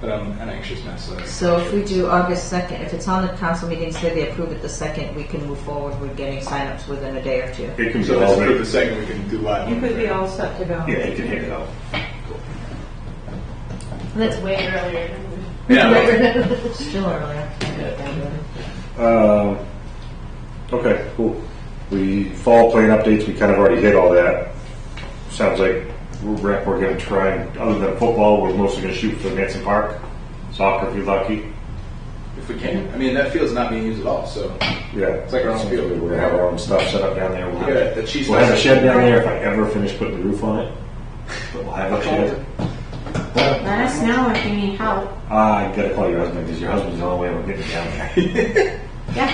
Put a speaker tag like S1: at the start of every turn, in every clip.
S1: but I'm an anxious mess. So,
S2: So if we do August 2nd, if it's on the council meeting, say they approve it the 2nd, we can move forward with getting signups within a day or two.
S3: It can be
S1: so let's
S3: all,
S1: approve the
S3: yeah,
S1: second. We can do live.
S4: You could be all set to go.
S3: it can hang it out.
S5: That's way earlier than we
S3: Yeah.
S2: Still earlier.
S3: Um, okay, cool. We, fall plan updates, we kind of already hit all that. Sounds like we're, rec- we're gonna try, and other than football, we're mostly gonna shoot for Manson Park. Soccer, if you're lucky.
S1: if we can. I mean, that field's not being used at all. So
S3: Yeah.
S1: It's like our own field.
S3: We're gonna have our own stuff set up down there. We'll have-
S1: Yeah, the cheese
S3: We'll have a
S1: fest.
S3: shed down there if I ever finish putting the roof on it. But we'll have a shed.
S5: Let us know if you need help.
S3: Ah, you gotta call your husband, because your husband's the only way we're getting down there.
S5: Yeah,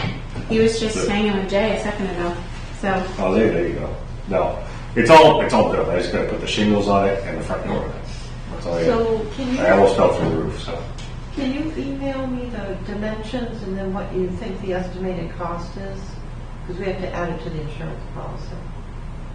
S5: he was just hanging with Jay a second ago. So,
S3: Oh, there, there you go. No, it's all, it's all built. I just gotta put the shingles on it and the front door. That's all I got.
S4: So can
S3: I
S4: you,
S3: almost fell through the roof, so.
S4: can you email me the dimensions and then what you think the estimated cost is? Because we have to add it to the insurance policy.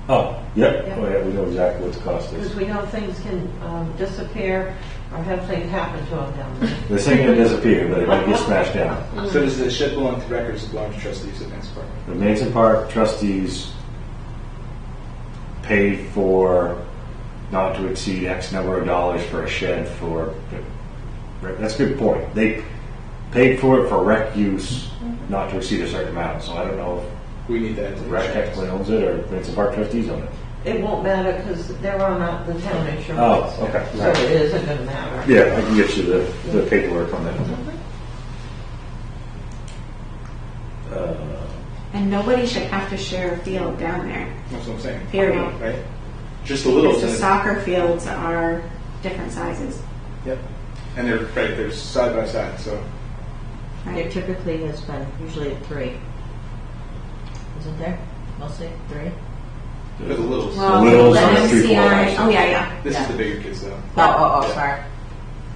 S3: Oh, yep.
S4: Yeah.
S3: Oh, yeah, we know exactly what the cost
S4: Because
S3: is.
S4: we know things can um, disappear or have things happen to them down there.
S3: This ain't gonna disappear, but it might get smashed down.
S1: so does the shed belong to records? Belong to trustees at Man's Park?
S3: The Manson Park trustees paid for not to exceed X number of dollars for a shed for, that's a good point. They paid for it for rec use,
S4: Mm-hmm.
S3: not to exceed a certain amount, so I don't know
S1: We need that. in
S3: if
S1: the
S3: rec
S1: insurance.
S3: technically owns it or Manson Park trustees own it.
S4: It won't matter because they're on uh, the town insurance.
S3: Oh, okay.
S4: So it isn't going to matter.
S3: Yeah, I can get you the, the paperwork on that.
S5: and nobody should have to share a field down there.
S1: That's what I'm saying.
S5: Period.
S1: Right. Just a little.
S5: Because the
S1: bit.
S5: soccer fields are different sizes.
S1: Yep. And they're right. They're side by side. So
S2: There
S5: Right?
S2: typically has been usually three. Isn't there? Mostly three?
S1: there's a little.
S5: Well,
S3: Littles
S5: the
S3: are three, four
S5: MCI.
S3: hours.
S5: Oh, yeah, yeah.
S1: this
S2: yeah.
S1: is the bigger kids though.
S2: Oh, oh, oh, sorry.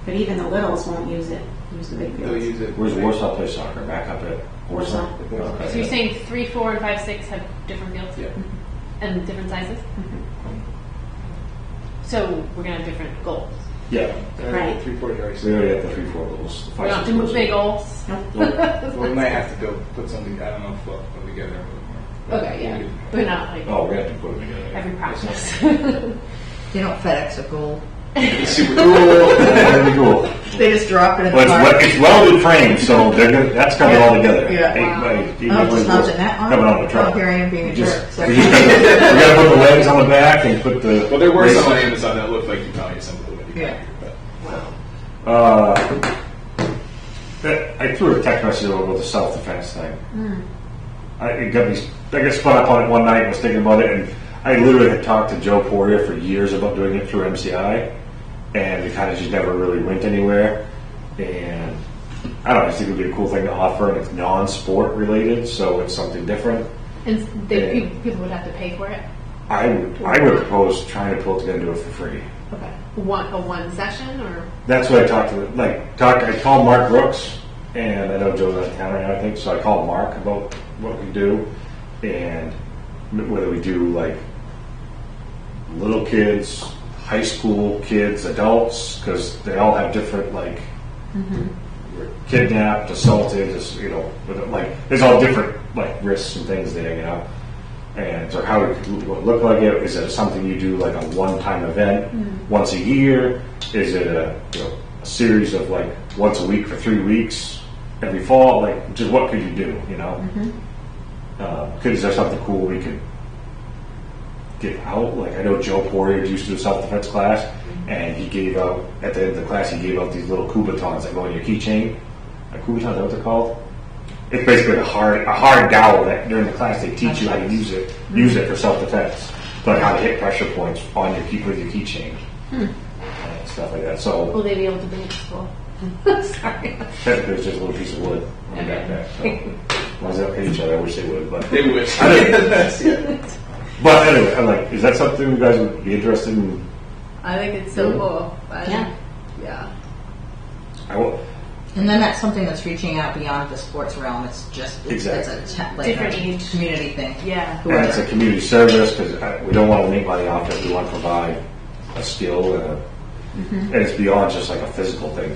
S5: But even the littles won't use it. Use the big
S1: They'll
S5: fields.
S1: use it.
S3: Where's Warsaw play soccer? Back up at Warsaw.
S1: Warsaw.
S3: Okay.
S6: So you're saying three, four, and five, six have different fields?
S1: Yeah.
S6: And different sizes? So we're gonna have different goals.
S3: Yeah.
S5: Right.
S1: Uh, Three forty yards.
S3: We already have the three, four goals.
S6: We don't have to move big goals.
S1: Well, we might have to go put something. I don't know if we'll put together. a little more.
S6: Okay, yeah. We're not like
S3: Oh, we have to put them together.
S6: every process.
S2: They don't FedEx a goal.
S1: It's super cool.
S3: That'd be cool.
S2: They just drop it in
S3: Well,
S2: the
S3: it's,
S2: park.
S3: wel- it's welded frame, so they're gonna, that's coming all together.
S2: Yeah.
S3: Eight by eight.
S2: Oh, just not in that one?
S3: Coming on the truck.
S2: Oh, here I am being
S3: We
S2: a
S3: just-
S2: jerk. Sorry.
S3: We just gotta- we gotta put the legs on the back and put the.
S1: well, there were some on Amazon that looked like you probably assembled it.
S2: Yeah.
S1: But
S3: Uh, that- I threw a text message over with the self defense thing. I it got me. I got spun up on it one night and was thinking about it, and I literally had talked to Joe Poria for years about doing it through MCI, and it kind of just never really went anywhere. And I don't know. I just think it would be a cool thing to offer, and it's non-sport related, so it's something different.
S6: And they, people would have to pay for it?
S3: I would, I would propose trying to pull it together and do it for free.
S6: Okay. One, a one session or?
S3: That's what I talked to. Like, talked. I called Mark Brooks, and I know Joe's out of town right now. I think so. I called Mark about what we do, and whether we do like little kids, high school kids, adults, because they all have different like were kidnapped, assaulted, just, you know, with, like there's all different like risks and things there, you know. And so how it could lo- look like it is it something you do like a one-time event once a year? Is it a, you know, a series of like once a week for three weeks every fall? Like just what could you do? You know, uh, could is there something cool we could get out. Like I know Joe Poirier used to do self defense class, and he gave out at the end of the class he gave out these little Kubatons that go in your keychain. A Kubaton, is that what they're called? It's basically a hard a hard dowel that during the class they teach you how to use it use it for self defense, like how to hit pressure points on your key with your keychain. and Stuff like that. So
S6: Will they be able to bring it to school? Sorry.
S3: technically, it's just a little piece of wood on your backpack. So, as long as they don't hit each other, I wish they would. But
S1: they would.
S3: but anyway, I'm like, is that something you guys would be interested in
S7: I think it's so
S3: Yeah.
S7: cool. I
S5: Yeah.
S7: think- Yeah.
S3: I will,
S2: And then that's something that's reaching out beyond the sports realm. It's just, it's, it's a te- like
S6: Different
S2: a
S6: age.
S2: community thing.
S6: Yeah.
S3: And it's a community service, because we don't want to make money off it, we want to provide a skill and a, and it's beyond just like a physical thing